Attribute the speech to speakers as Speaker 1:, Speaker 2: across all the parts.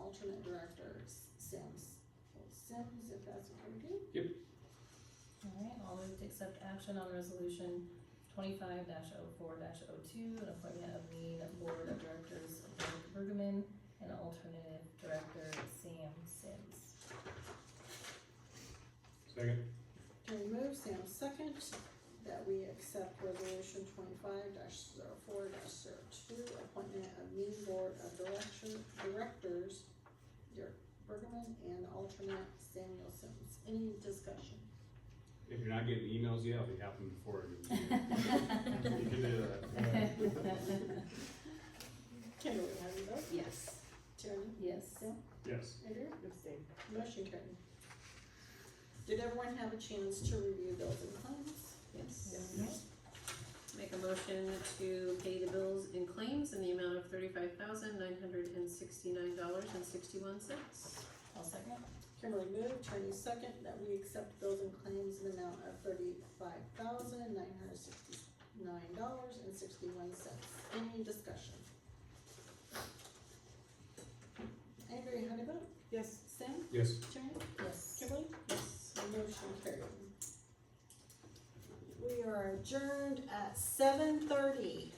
Speaker 1: alternate director, Sims. Well, Sims, if that's what we do.
Speaker 2: Alright, I'll move to accept action on resolution twenty-five oh 4 2 an appointment of lead board of directors Eric Bergman and alternative director Sam Sims.
Speaker 3: Second.
Speaker 1: Terry moves, Sam seconds, that we accept resolution twenty-five 4 2 appointment of new board of direction, directors, Dirk Bergman and alternate Samuel Sims. Any discussion?
Speaker 3: If you're not getting emails yet, I'll be happy before. it. You can do that.
Speaker 1: Kimberly, how do you vote?
Speaker 4: Yes.
Speaker 1: Terry?
Speaker 2: Yes.
Speaker 1: Sam?
Speaker 3: Yes.
Speaker 1: Andrew?
Speaker 4: Abstain.
Speaker 1: Motion carried. Did everyone have a chance to review bills and claims?
Speaker 4: Yes.
Speaker 2: Yes.
Speaker 4: Make a motion to pay the bills and claims in the amount of thirty-five thousand nine hundred and sixty-nine dollars and sixty-one cents.
Speaker 2: I'll second.
Speaker 1: Kimberly moved, Tony second, that we accept bills and claims in the amount of thirty-five thousand nine hundred sixty-nine dollars and sixty-one cents. Any discussion? Andrea, how do you vote?
Speaker 4: Yes.
Speaker 1: Sam?
Speaker 3: Yes.
Speaker 1: Tony?
Speaker 2: Yes.
Speaker 1: Kimberly?
Speaker 4: Yes.
Speaker 1: Motion carried. We are adjourned at seven thirty.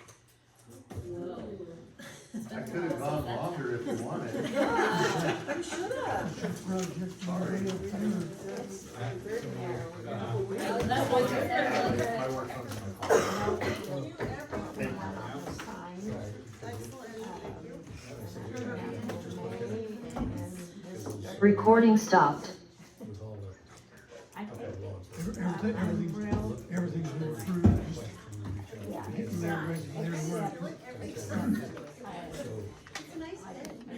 Speaker 5: I could have gone longer if you wanted.
Speaker 1: Yeah, you should have.
Speaker 5: Sorry.
Speaker 3: Uh,
Speaker 2: That was your
Speaker 5: My work comes from my phone.
Speaker 1: Thank you, everyone. Excellent, thank you.
Speaker 6: Recording stopped.
Speaker 7: with all the.
Speaker 8: I
Speaker 7: Okay, well, it's-
Speaker 8: Everything, everything's, everything's been approved,
Speaker 7: Like, from the-
Speaker 8: just, they're, ready- they're working.
Speaker 7: Yeah.